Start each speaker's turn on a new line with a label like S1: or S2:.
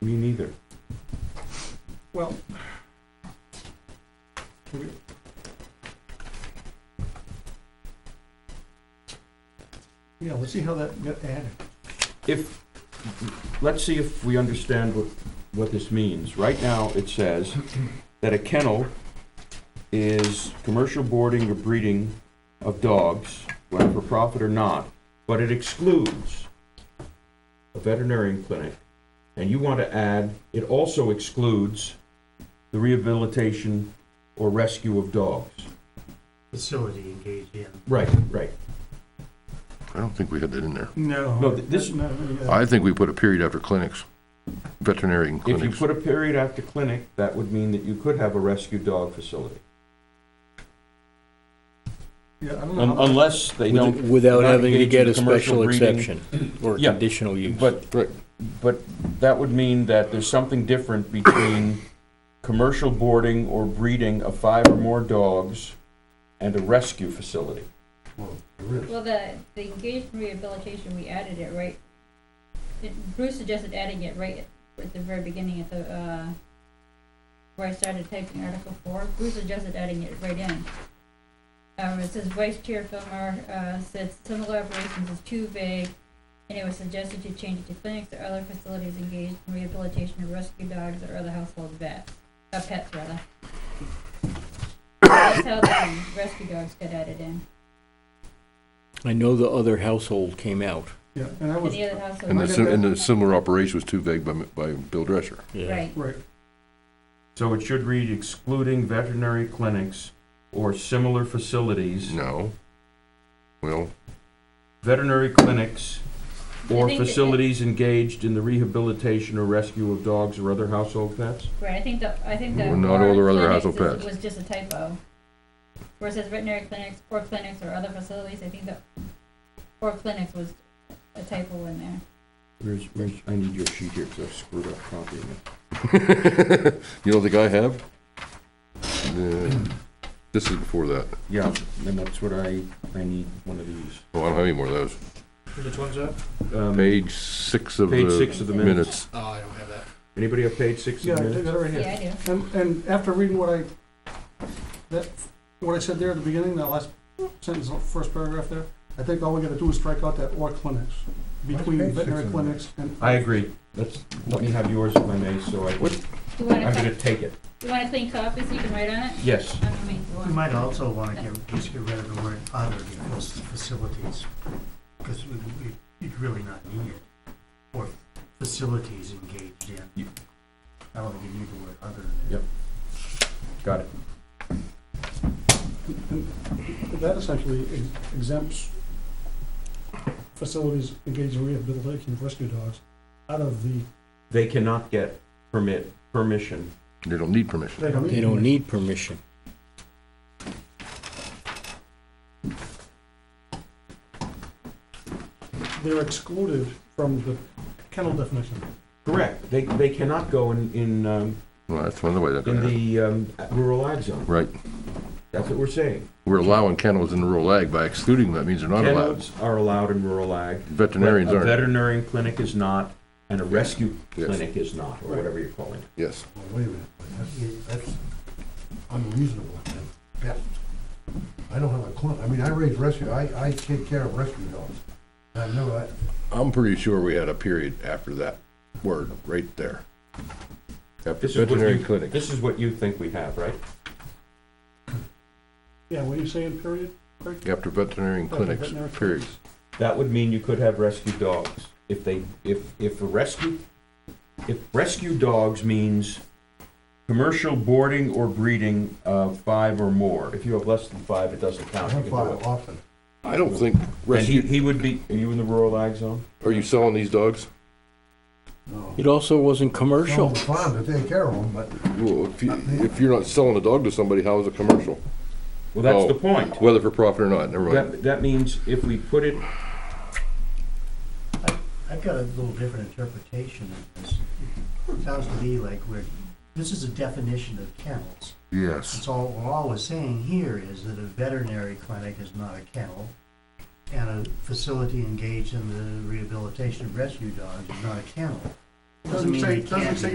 S1: Well. do we- Yeah, let's see how that got added.
S2: If, let's see if we understand what, what this means. Right now, it says that a kennel is commercial boarding or breeding of dogs, whether for profit or not, but it excludes a veterinarian clinic. And you want to add, it also excludes the rehabilitation or rescue of dogs.
S3: facility engaged in.
S2: Right, right.
S4: I don't think we had that in there.
S1: No.
S2: No, th- this-
S1: No, yeah.
S4: I think we put a period after clinics, veterinarian
S2: If you
S4: clinics.
S2: put a period after clinic, that would mean that you could have a rescue dog facility.
S1: Yeah, I don't know.
S2: Un-
S1: how-
S2: Unless they don't.
S5: Without
S2: not
S5: having to
S2: engage
S5: get
S2: in
S5: a
S2: commercial
S5: special
S2: breeding.
S5: exception or
S2: Yeah,
S5: conditional use.
S2: But,
S4: Right.
S2: but that would mean that there's something different between commercial boarding or breeding of five or more dogs and a rescue facility.
S6: Well, the, the engaged in rehabilitation, we added it right, it- Bruce suggested adding it right at- at the very beginning at the, uh, where I started typing Article four, Bruce suggested adding it right in. Um, it says Vice Chair Filmer, uh, said similar operations is too vague, and it was suggested to change it to clinics or other facilities engaged in rehabilitation of rescue dogs or other household vets, uh, pets rather. That's how the um, rescue dogs got added in.
S5: I know the other household came out.
S1: Yeah, and I was,
S6: Any other household.
S4: And the, sim- and the similar operation was too vague by, by Bill Dresser.
S6: Right,
S1: right,
S2: So it should read excluding veterinary clinics or similar facilities,
S4: No. Well,
S2: veterinary clinics
S6: I
S2: or
S6: think that-
S2: facilities engaged in the rehabilitation or rescue of dogs or other household pets?
S6: right, I think the, I think the.
S4: Well, not all
S6: or
S4: their other
S6: clinics
S4: household
S6: is-
S4: pets.
S6: Was just a typo. Where it says veterinary clinics, or clinics or other facilities, I think the, or clinics was a typo in there.
S2: Where's, where's, I need your sheet here because I screwed up copying it.
S4: you don't think I have? The- This is before that.
S2: Yeah, and that's what I, I need one of these.
S4: Oh, I don't have any more of those.
S3: Which one's that?
S2: Um,
S4: Page six of
S2: Page
S4: the
S2: six of the minutes.
S4: minutes.
S3: Oh, I don't have that.
S2: Anybody have page six
S1: yeah,
S2: of
S1: I
S2: the
S1: did
S2: minutes?
S1: that right here.
S6: Yeah, I do.
S1: And, and after reading what I, that, what I said there at the beginning, that last sentence, the first paragraph there, I think all we gotta do is strike out that or clinics,
S7: Why
S1: between
S7: is page six
S1: veterinary
S7: in there?
S1: clinics and.
S2: I agree. Let's, let me have yours if I may, so I,
S4: What?
S6: You want
S2: I'm
S6: a,
S2: gonna
S6: clean-
S2: take it.
S6: you want a clean copy so you can write on it?
S2: Yes.
S6: I'm gonna make you
S3: We
S6: one.
S3: might also want to get, just get rid of the word other because the facilities, because we, we, you'd really not need it. Or facilities engaged in.
S2: You-
S3: I don't think you need the word other.
S2: Yep. Got it.
S1: That essentially ex- exempts facilities engaged in rehabilitation of rescue dogs out of the,
S2: They cannot get permit, permission.
S4: They don't need permission.
S1: they don't need.
S5: They don't need permission.
S1: They're excluded from the kennel definition.
S2: Correct. They, they cannot go in, in, um,
S4: Well, that's one of the ways I
S2: in
S4: got it.
S2: the, um, rural ag zone.
S4: Right.
S2: That's what we're saying.
S4: We're allowing kennels in rural ag by excluding them. That means they're not allowed.
S2: Kennels are allowed in rural ag.
S4: Veterinarians
S2: but
S4: aren't.
S2: A veterinarian clinic is not, and a rescue
S4: Yes.
S2: clinic is not, or whatever you're calling it.
S4: Yes.
S7: Well, wait a minute, but that- that's unreasonable, at best. I don't have a clue, I mean, I raise rescue, I, I take care of rescue dogs. I know that,
S4: I'm pretty sure we had a period after that word, right there. After
S2: This is what
S4: veterinary
S2: you-
S4: clinic.
S2: This is what you think we have, right?
S1: Yeah, what are you saying, period?
S4: After veterinarian
S1: After
S4: clinics,
S1: veterinary
S4: period.
S2: That would mean you could have rescue dogs. If they, if, if a rescue, if rescue dogs means commercial boarding or breeding of five or more. If you have less than five, it doesn't
S7: I
S2: count. You
S7: have
S2: can do
S7: five
S2: it.
S7: often.
S4: I don't think
S2: And he,
S4: rescue,
S2: he would be, are you in the rural ag zone?
S4: are you selling these dogs?
S7: No.
S5: It also wasn't
S7: Some
S5: commercial.
S7: of the farm to take care of them, but
S4: Well, if you, if you're not selling a dog to somebody, how is it commercial?
S2: Well, that's
S4: Oh.
S2: the point.
S4: Whether for profit or not, never mind.
S2: That, that means if we put it,
S3: I've got a little different interpretation of this. It Sounds to me like we're, this is a definition of kennels.
S4: Yes.
S3: It's all, we're always saying here is that a veterinary clinic is not a kennel, and a facility engaged in the rehabilitation of rescue dogs is not a kennel.
S1: Doesn't
S3: mean
S1: say-
S3: it can't
S1: doesn't say
S3: be.